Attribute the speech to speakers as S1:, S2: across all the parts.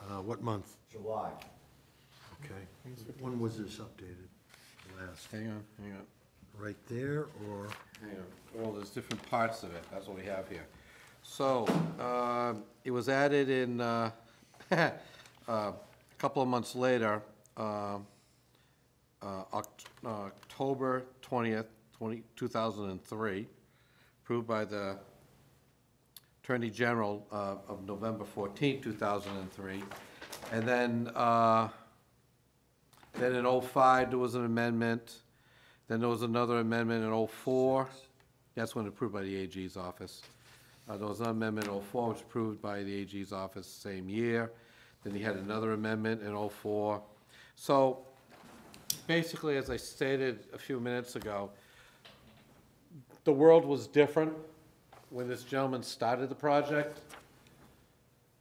S1: Uh, what month?
S2: July.
S1: Okay. When was this updated? Last,
S3: Hang on, hang on,
S1: right there, or,
S3: hang on. Well, there's different parts of it, that's what we have here. So, um, it was added in, uh, uh, a couple of months later, um, uh, Oct- uh, October 20th, 20 2003, approved by the Attorney General uh, of November 14th, 2003. And then, uh, then in '05, there was an amendment, then there was another amendment in '04. That's when approved by the AG's office. Uh, There was an amendment in '04, which was approved by the AG's office same year. Then he had another amendment in '04. So basically, as I stated a few minutes ago, the world was different when this gentleman started the project.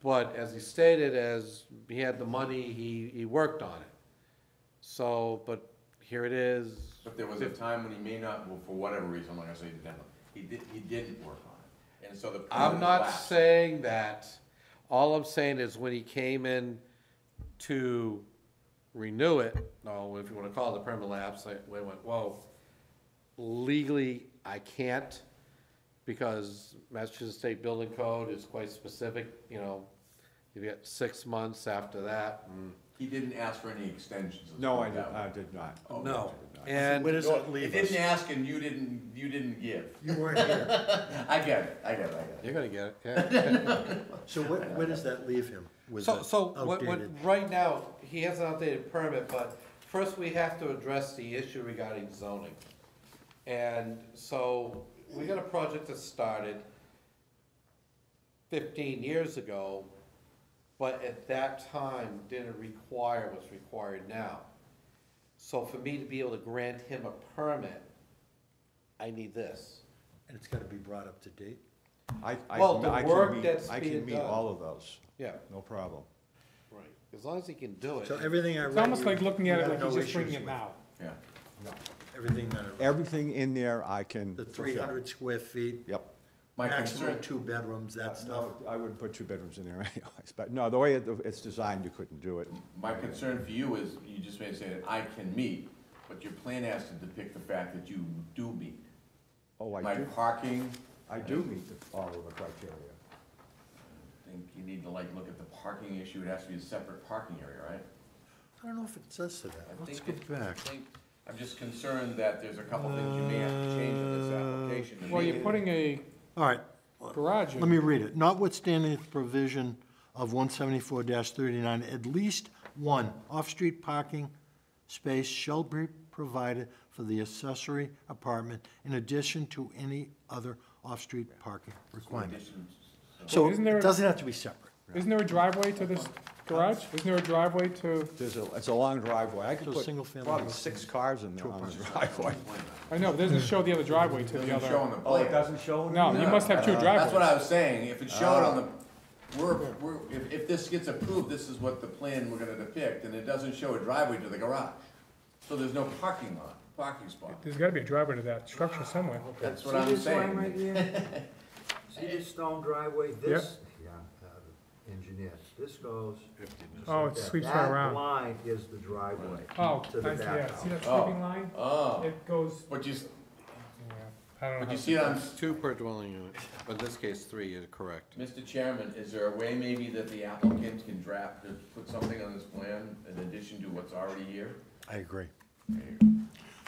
S3: But as he stated, as he had the money, he, he worked on it. So, but here it is.
S4: But there was a time when he may not, well, for whatever reason, like I say, he didn't, he did, he didn't work on it, and so the.
S3: I'm not
S4: lapsed.
S3: saying that. All I'm saying is when he came in to renew it, no, if you wanna call it a permit lapse, I, we went, whoa. Legally, I can't, because Massachusetts State Building Code is quite specific, you know. You've got six months after that, Mm. and.
S4: He didn't ask for any extensions. let's
S5: No,
S4: put
S5: I
S4: it
S5: did,
S4: that way.
S5: I did not.
S3: No,
S5: I did not.
S3: and.
S1: where does
S4: No,
S1: that leave
S4: He
S1: us?
S4: didn't ask and you didn't, you didn't give.
S1: You weren't here,
S4: I get it, I get it, I get it.
S3: You're gonna get it, yeah.
S1: so where, where does that leave him? with
S3: So,
S1: the
S3: so, what, what,
S1: outdated?
S3: right now, he has an outdated permit, but first we have to address the issue regarding zoning. And so, we got a project that started fifteen years ago, but at that time didn't require what's required now. So for me to be able to grant him a permit, I need this.
S1: And it's gotta be brought up to date?
S5: I, I,
S3: Well, the
S5: I
S3: work
S5: can
S3: that's
S5: meet, I
S3: being
S5: can meet
S3: done.
S5: all of those,
S3: Yeah.
S5: no problem.
S3: Right, as long as he can do it.
S1: So everything I read.
S6: It's almost
S1: you-
S6: like looking
S1: you
S6: at it
S1: have
S6: like he's
S1: no
S6: just bringing
S1: issues
S6: it
S1: with.
S6: now.
S4: Yeah.
S1: Everything that I read.
S5: Everything in there I can.
S1: The
S5: fulfill.
S1: three hundred square feet,
S5: Yep.
S4: My
S1: maximum
S4: concern,
S1: two bedrooms, that stuff.
S5: Uh, No, I wouldn't put two bedrooms in there anyways, but no, the way it- it's designed, you couldn't do it.
S4: my concern for you is, you just may say that I can meet, but your plan has to depict the fact that you do meet.
S5: Oh, I
S4: My
S5: do,
S4: parking,
S5: I do meet the- all of the criteria.
S4: I think you need to like look at the parking issue, it has to be a separate parking area, right?
S1: I don't know if it says to that,
S4: I
S1: let's go
S4: think it-
S1: back.
S4: I think- I'm just concerned that there's a couple things you may have to change in this application. to
S6: Uh, Well,
S4: make
S6: you're
S4: it-
S6: putting a
S1: All right,
S6: garage
S1: let me
S6: in.
S1: read it. Notwithstanding the provision of one seventy-four thirty-nine, at least one off-street parking space shall be provided for the accessory apartment in addition to any other off-street parking requirement. So
S6: Isn't there-
S1: it doesn't have to be separate.
S6: Isn't there a driveway to this garage? Isn't there a driveway to,
S5: There's a, it's a long driveway, I could
S1: So single
S5: put
S1: family
S5: probably
S1: house
S5: six cars in there on the driveway.
S6: I know, but doesn't
S1: Hmm.
S6: it show the other driveway to the
S4: Doesn't show on
S6: other?
S4: the
S5: Oh, it
S4: plan. Uh,
S5: doesn't show? in
S6: No,
S5: there?
S6: you must have two
S4: That's what
S6: driveways. Oh.
S4: I was saying, if it's shown on the, we're, we're, if, if this gets approved, this is what the plan we're gonna depict, and it doesn't show a driveway to the garage. So there's no parking lot, parking spot.
S6: There's gotta be a driveway to that structure somewhere.
S4: That's what
S7: See
S4: I'm
S7: this line right
S4: saying.
S7: here? See this stone driveway, this, yeah, I'm not an engineer, this goes.
S6: Oh, it sweeps right
S7: That
S6: around.
S7: line is the driveway.
S6: Oh,
S7: To the
S6: I see,
S7: back
S6: yeah, see that
S4: Oh.
S6: sweeping line?
S4: Oh,
S6: It goes,
S4: but you, s-
S6: yeah, I don't know.
S4: but
S6: how-
S4: you see it on,
S3: Two per dwelling unit, but in this case, three, you're correct.
S4: Mr. Chairman, is there a way maybe that the applicant can draft, to put something on this plan in addition to what's already here?
S1: I agree.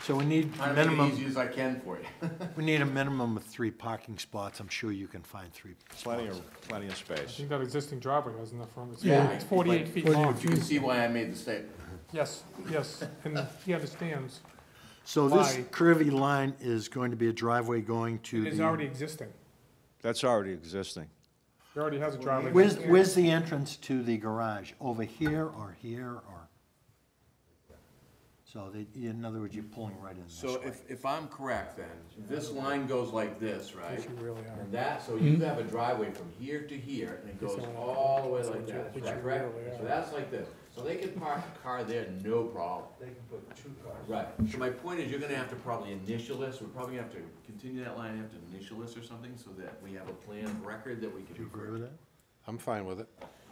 S1: So we need
S4: Trying to make it
S1: minimum,
S4: easy as I can for you.
S1: we need a minimum of three parking spots. I'm sure you can find three.
S5: Plenty of, plenty of
S6: I
S5: space.
S6: think that existing driveway has enough room. It's
S4: Yeah,
S6: forty- It's forty-eight feet long.
S4: You can see why I made the statement.
S6: Yes, yes, and he understands.
S1: So this
S6: Why?
S1: curvy line is going to be a driveway going to
S6: It is
S1: the,
S6: already existing.
S5: That's already existing.
S6: He already has a driveway.
S1: where's, where's the entrance to the garage? Over here or here or? So they, in other words, you're pulling right in this
S4: So
S1: way.
S4: if, if I'm correct then, this line goes like this, right?
S6: You really are. Mm-hmm.
S4: And that, so you have a driveway from here to here and it goes all the way like that, is that correct? So that's like this. So they can park a car there, no problem.
S7: They can put two cars.
S4: Right, so my point is you're gonna have to probably initial this, we're probably gonna have to continue that line, and have to initial this or something so that we have a plan of record that we
S1: Do
S4: can
S1: you agree
S4: refer.
S1: with that?
S3: I'm fine with it.